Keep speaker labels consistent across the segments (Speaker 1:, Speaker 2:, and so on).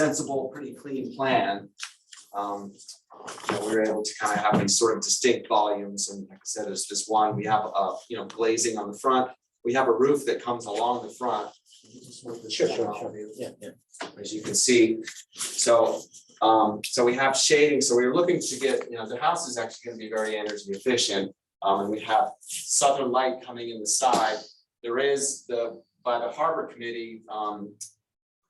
Speaker 1: sensible, pretty clean plan. Um, you know, we were able to kind of have these sort of distinct volumes and like I said, it's just one, we have a, you know, glazing on the front. We have a roof that comes along the front.
Speaker 2: Sure, sure, sure. Yeah, yeah.
Speaker 1: As you can see, so, um, so we have shading, so we were looking to get, you know, the house is actually gonna be very energy efficient. Um, and we have southern light coming in the side. There is the, by the harbor committee, um,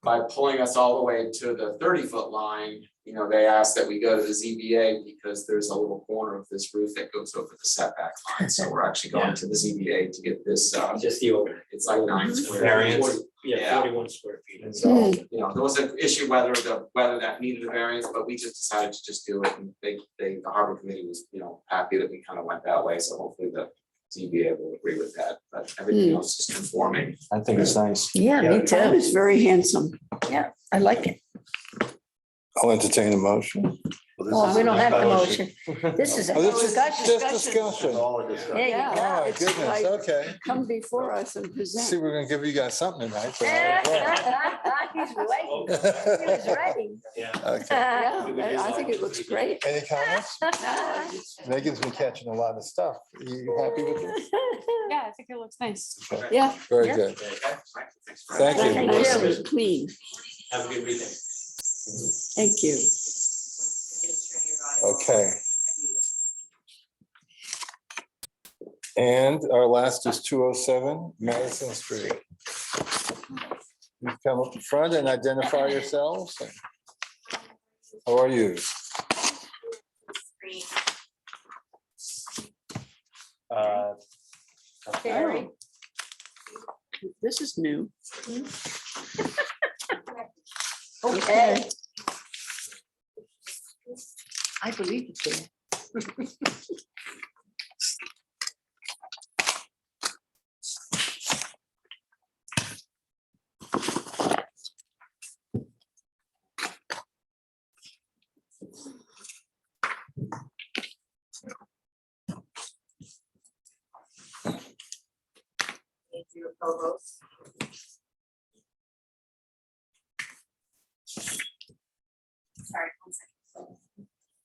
Speaker 1: by pulling us all the way to the thirty foot line, you know, they asked that we go to the ZBA because there's a little corner of this roof that goes over the setback line. So we're actually going to the ZBA to get this, uh,
Speaker 2: Just the over.
Speaker 1: it's like nine square. feet.
Speaker 3: Variance.
Speaker 2: Forty- Yeah,
Speaker 1: Yeah.
Speaker 2: forty-one square feet.
Speaker 1: And so, you know, there was an issue whether the, whether that needed a variance, but we just decided to just do it, and they, they, the harbor committee was, you know, happy that we kind of went that way, so hopefully the ZBA will agree with that, but everything else is conforming.
Speaker 3: I think it's nice.
Speaker 4: Yeah, me
Speaker 5: That
Speaker 4: too.
Speaker 5: is very handsome.
Speaker 4: I like it.
Speaker 6: I'll entertain a motion.
Speaker 4: Well, we don't have the motion. This is a
Speaker 6: Oh, this is
Speaker 4: discussion.
Speaker 6: just discussion. Oh,
Speaker 3: All
Speaker 4: There you go.
Speaker 6: my
Speaker 4: It's
Speaker 6: goodness,
Speaker 5: like-
Speaker 6: okay.
Speaker 5: Come before us and
Speaker 6: See,
Speaker 5: present.
Speaker 6: we're gonna give you guys something tonight. so-
Speaker 4: He's waiting. He was ready.
Speaker 2: Yeah.
Speaker 6: Okay.
Speaker 5: Yeah, I I think it looks great.
Speaker 6: Any comments? Megan's been catching a lot of stuff. You you happy with this?
Speaker 7: Yeah, I think it looks nice.
Speaker 6: Okay,
Speaker 5: Yeah.
Speaker 6: Very
Speaker 4: Yeah.
Speaker 6: good.
Speaker 1: Okay, right, thanks for-
Speaker 6: Thank you.
Speaker 5: It
Speaker 4: Thank you.
Speaker 5: was clean.
Speaker 2: Have a good weekend.
Speaker 5: Thank you.
Speaker 6: Okay. And our last is two oh seven Madison Street. Please Come up front and identify yourselves. How are you?
Speaker 3: Uh,
Speaker 4: Very.
Speaker 5: This is new.
Speaker 4: Okay.
Speaker 5: I believe it's there.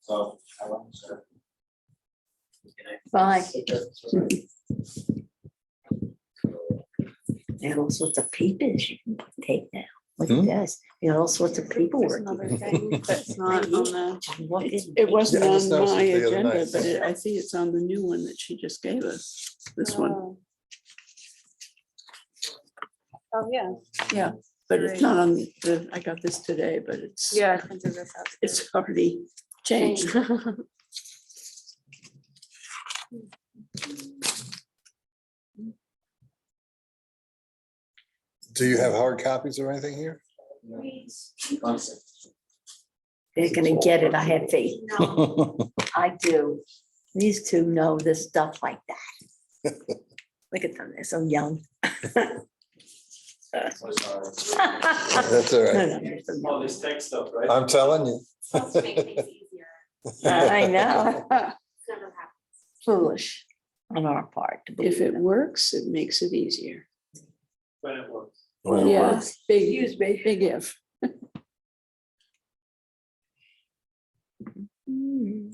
Speaker 2: So. I love you, sir.
Speaker 4: Bye.
Speaker 8: And all sorts of papers you can take now, like
Speaker 6: Hmm?
Speaker 8: this, you know, all sorts of
Speaker 7: There's
Speaker 8: paperwork.
Speaker 7: another thing that's
Speaker 5: Not
Speaker 7: not
Speaker 5: on the, it
Speaker 8: It
Speaker 5: wasn't
Speaker 6: Yeah, I just
Speaker 5: on
Speaker 6: noticed
Speaker 5: my
Speaker 6: it the other
Speaker 5: agenda,
Speaker 6: night.
Speaker 5: but it- I see it's on the new one that she just gave us, this one.
Speaker 7: Oh, yeah.
Speaker 5: But it's not on the, I got this today, but it's,
Speaker 7: Yeah. I printed this out.
Speaker 5: it's already changed.
Speaker 6: Do you have hard copies or anything here?
Speaker 8: They're gonna get it, I have faith, I do. These two know this stuff like that. Look at them, they're so young.
Speaker 6: That's all right.
Speaker 2: All Oh, this tech stuff, right?
Speaker 6: I'm telling you.
Speaker 9: Helps make things easier.
Speaker 8: Uh, I know,
Speaker 9: It's never happened.
Speaker 8: foolish on our part to
Speaker 5: If
Speaker 8: believe
Speaker 5: it
Speaker 8: it.
Speaker 5: works, it makes it easier.
Speaker 2: When it works.
Speaker 6: Well,
Speaker 5: Yeah, big, big if.
Speaker 8: Hmm.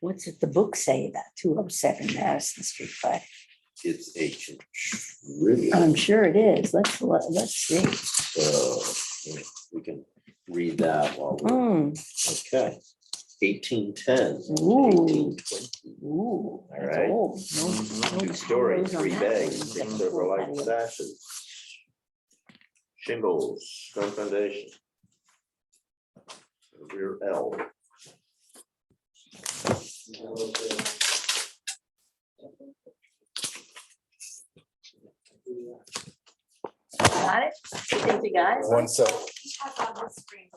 Speaker 8: What's it, the book say about two oh seven Madison Street, but
Speaker 3: It's ancient, really, uh,
Speaker 8: I'm sure it is, let's, let- let's see.
Speaker 3: uh, we can read that while
Speaker 4: Oh.
Speaker 3: we're,
Speaker 8: Hmm.
Speaker 3: okay. Eighteen ten.
Speaker 8: Ooh.
Speaker 3: All
Speaker 8: That's
Speaker 3: right.
Speaker 8: old. No- no
Speaker 3: Two story,
Speaker 8: towers on
Speaker 3: three
Speaker 8: that
Speaker 3: bay,
Speaker 8: one.
Speaker 3: six silver light sashes. Shingles, stone foundation. Rear L.
Speaker 8: Got it? You think you got it?
Speaker 6: One sec.
Speaker 9: He has on his screen.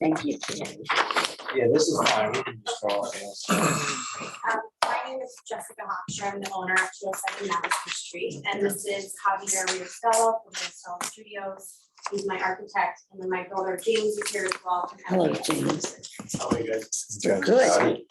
Speaker 8: Thank you. Jan.
Speaker 2: Yeah, this is fine. We can just call it.
Speaker 9: Um, My name is Jessica Hofstra. I'm the owner of two oh seven Madison Street, and this is Javier Riostella from Riostella Studios. He's my architect, and then my builder James is here as well. from
Speaker 8: Hello,
Speaker 9: Elegant.
Speaker 8: James.
Speaker 2: How are you guys?
Speaker 6: Jen.
Speaker 8: Good.